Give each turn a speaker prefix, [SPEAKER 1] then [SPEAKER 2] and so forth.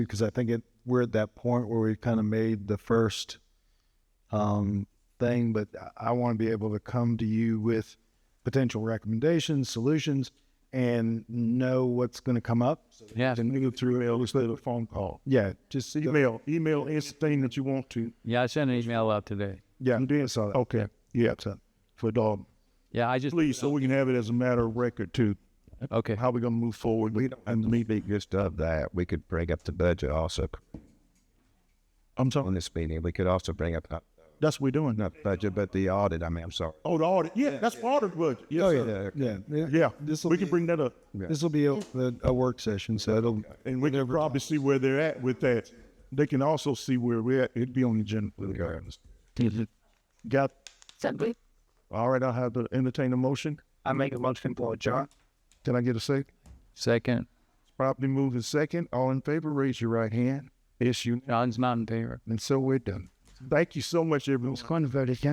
[SPEAKER 1] because I think it, we're at that point where we've kind of made the first um, thing, but I- I want to be able to come to you with potential recommendations, solutions, and know what's going to come up. So
[SPEAKER 2] Yeah.
[SPEAKER 1] to move through it instead of a phone call. Yeah, just
[SPEAKER 3] Email, email anything that you want to.
[SPEAKER 2] Yeah, I sent an email out today.
[SPEAKER 1] yeah.
[SPEAKER 3] You did?
[SPEAKER 1] saw that.
[SPEAKER 3] Okay, yeah, for dog,
[SPEAKER 2] Yeah, I just
[SPEAKER 3] please, so we can have it as a matter of record too.
[SPEAKER 2] okay.
[SPEAKER 3] How we gonna move forward? We don't.
[SPEAKER 4] And maybe just of that, we could bring up the budget also
[SPEAKER 3] I'm sorry.
[SPEAKER 4] on this meeting. We could also bring up not
[SPEAKER 3] That's what we're doing.
[SPEAKER 4] not budget, but the audit. I mean, I'm sorry.
[SPEAKER 3] Oh, the audit. Yeah, that's part of the budget. Yes,
[SPEAKER 1] Oh,
[SPEAKER 3] sir.
[SPEAKER 1] Yeah,
[SPEAKER 3] Yeah,
[SPEAKER 1] This will
[SPEAKER 3] we can
[SPEAKER 1] be
[SPEAKER 3] bring that up,
[SPEAKER 1] this will be a, a, a work session, so it'll
[SPEAKER 3] and we can probably see where they're at with that. They can also see where we're at. It'd be on the agenda. for the governors. Got. All right, I'll have to entertain a motion.
[SPEAKER 5] I make a motion for adjourn.
[SPEAKER 3] Can I get a second?
[SPEAKER 2] Second,
[SPEAKER 3] Properly moved in second. All in favor, raise your right hand. It's you.
[SPEAKER 2] John's not in favor.
[SPEAKER 3] And so we're done. Thank you so much, everyone.
[SPEAKER 5] Going to vote again.